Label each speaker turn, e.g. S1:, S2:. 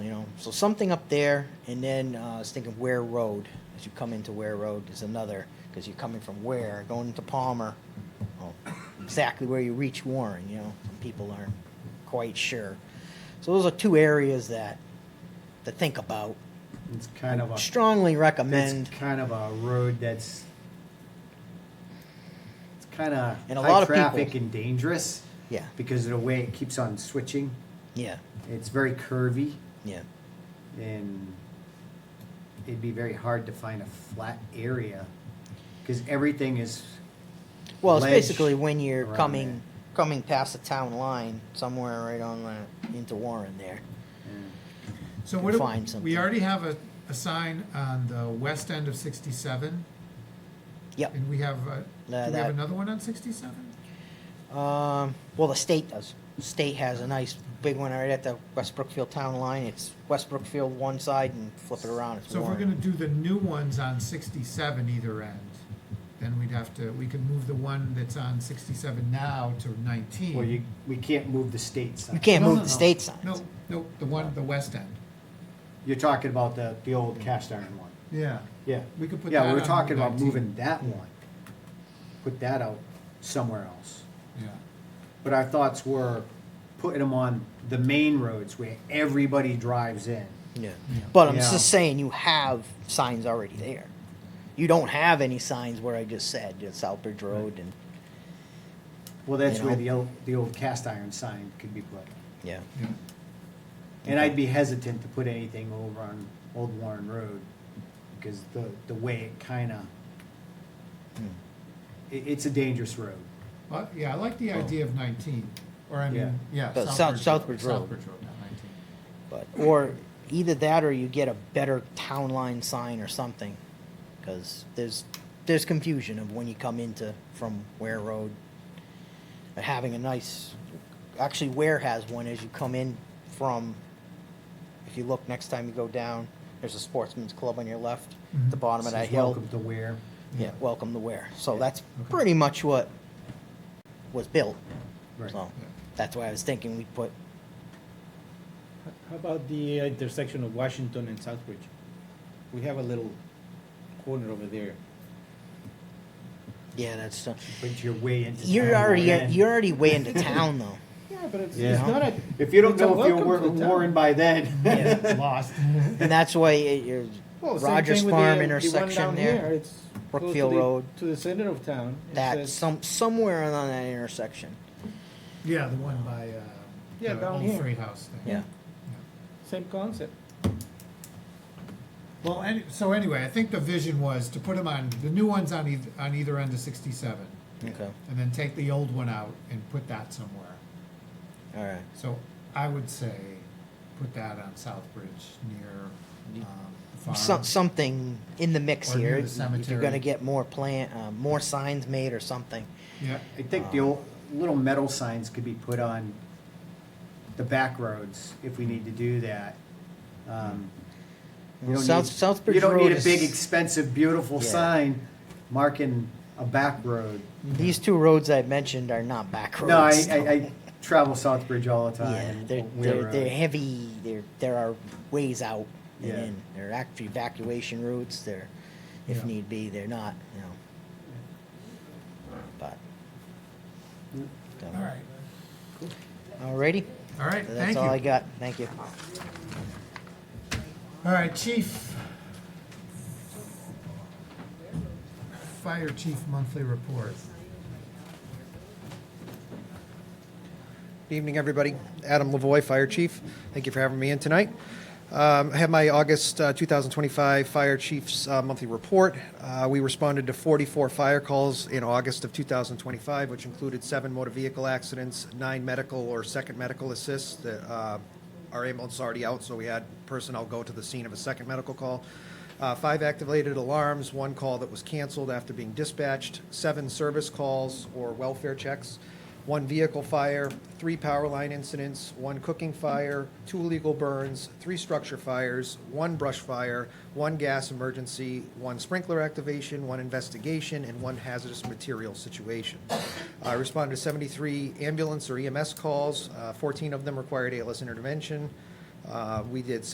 S1: So something up there, and then uh, I was thinking Ware Road, as you come into Ware Road, is another, because you're coming from Ware, going into Palmer, well, exactly where you reach Warren, you know, some people aren't quite sure. So those are two areas that, to think about.
S2: It's kind of a
S1: Strongly recommend,
S2: it's kind of a road that's it's kind of
S1: And a
S2: high
S1: lot of
S2: traffic
S1: people-
S2: and dangerous
S1: yeah,
S2: because of the way it keeps on switching.
S1: yeah,
S2: It's very curvy
S1: yeah.
S2: and it'd be very hard to find a flat area because everything is
S1: Well, it's
S2: ledge
S1: basically when you're
S2: around
S1: coming, coming past the town line, somewhere right on the, into Warren there.
S3: So
S1: can
S3: what,
S1: find
S3: do-
S1: something.
S3: we already have a, a sign on the west end of sixty-seven,
S1: Yep.
S3: and we have, uh,
S1: Nah,
S3: do we
S1: that-
S3: have another one on sixty-seven?
S1: Um, well, the state does. State has a nice big one right at the West Brookfield town line. It's West Brookfield one side and flip it around. It's
S3: So if we're
S1: Warren.
S3: gonna do the new ones on sixty-seven either end, then we'd have to, we could move the one that's on sixty-seven now to nineteen.
S2: well you we can't move the state sign.
S1: You can't
S3: No,
S1: move
S3: no,
S1: the
S3: no.
S1: state signs.
S3: No, no, the one, the west end.
S2: You're talking about the the old cast iron one.
S3: Yeah.
S2: Yeah.
S3: We could put
S2: yeah,
S3: that
S2: we
S3: on
S2: were talking about
S3: 19.
S2: moving that one. Put that out somewhere else.
S3: Yeah.
S2: But our thoughts were putting them on the main roads where everybody drives in.
S1: Yeah. But I'm
S2: Yeah.
S1: just saying you have signs already there. You don't have any signs where I just said it's Southbridge Road and
S2: Well, that's
S1: You know.
S2: where the old, the old cast iron sign could be put.
S1: yeah.
S3: Yeah.
S2: And I'd be hesitant to put anything over on Old Warren Road because the, the way it kinda,
S1: Hmm.
S2: it, it's a dangerous road.
S3: Well, yeah, I like the idea of nineteen, or I mean, yeah.
S1: But South- Southbridge Road.
S3: Southbridge Road, not nineteen.
S1: But or either that or you get a better town line sign or something, because there's there's confusion of when you come into from Ware Road. And having a nice, actually Ware has one as you come in from. If you look next time you go down, there's a Sportsman's Club on your left, at the
S3: Mhm.
S1: bottom of that
S2: Says
S1: hill.
S2: Welcome to Ware.
S1: Yeah, welcome to Ware. So that's
S3: Okay.
S1: pretty much what was built.
S2: Right.
S1: So
S3: Yeah.
S1: that's why I was thinking we put
S4: How about the intersection of Washington and Southbridge? We have a little corner over there.
S1: yeah that's. Uh,
S2: But you're way into.
S1: You're
S2: town
S1: already uh,
S2: already.
S1: you're already way into town though.
S4: Yeah, but it's,
S2: Yeah.
S4: it's not a.
S2: If you don't
S4: it's a
S2: know if you're
S4: welcome to
S2: Wa-
S4: town.
S2: Warren by then,
S1: Yeah.
S3: It's lost.
S1: And that's why it- you're
S4: Well, same
S1: Rogers
S4: thing with
S2: uh,
S1: Farm
S4: the- the one
S1: intersection
S4: down here,
S1: there.
S4: it's close to
S1: Brookfield
S4: the-
S1: Road.
S4: To the center of town. It
S1: That
S4: says-
S1: some somewhere on that intersection.
S3: Yeah, the one by, uh,
S4: Yeah,
S3: the
S4: down
S3: old
S4: here.
S3: Freight House thing.
S1: Yeah.
S4: Same concept.
S3: Well, any, so anyway, I think the vision was to put them on, the new ones on either, on either end of sixty-seven,
S1: Okay.
S3: and then take the old one out and put that somewhere.
S1: All right.
S3: So I would say, put that on Southbridge near, um, the farm.
S1: Some, something in the mix
S3: Or near
S1: here.
S3: the
S1: If you're gonna
S3: cemetery.
S1: get more plant, uh, more signs made or something.
S3: Yeah,
S2: I think the old, little metal signs could be put on the back roads if we need to do that. Um, you don't
S1: South
S2: need-
S1: Southbridge
S2: You don't
S1: Road
S2: need a
S1: is-
S2: big, expensive, beautiful
S1: Yeah.
S2: sign marking a back road.
S1: These two roads I mentioned are not back roads.
S2: No, I, I,
S1: so-
S2: I travel Southbridge all the
S1: Yeah,
S2: time.
S1: they're,
S2: Ware
S3: uh,
S1: they're, they're
S2: Road.
S1: heavy, they're, there are ways out and
S2: Yeah.
S1: in. There are actually evacuation routes, they're, if
S3: Yeah.
S1: need be, they're not, you know. But. so,
S3: all right,
S1: Alrighty,
S3: all right, thank
S1: that's all I
S3: you.
S1: got, thank you.
S3: All right, chief. Fire chief monthly report.
S5: Good Evening, everybody. Adam Lavoy, Fire Chief. Thank you for having me in tonight. Um, I have my August uh, 2025 Fire Chief's uh, monthly report. Uh, We responded to 44 fire calls in August of 2025, which included seven motor vehicle accidents, nine medical or second medical assists. that, uh, Our ambulance is already out, so we had personnel go to the scene of a second medical call. Uh, Five activated alarms, one call that was canceled after being dispatched, seven service calls or welfare checks one vehicle fire, three power line incidents, one cooking fire, two illegal burns, three structure fires, one brush fire, one gas emergency, one sprinkler activation, one investigation, and one hazardous material situation. Uh, I responded to 73 E ambulance or EMS calls. Uh, 14 of them required ALS intervention. Uh, We did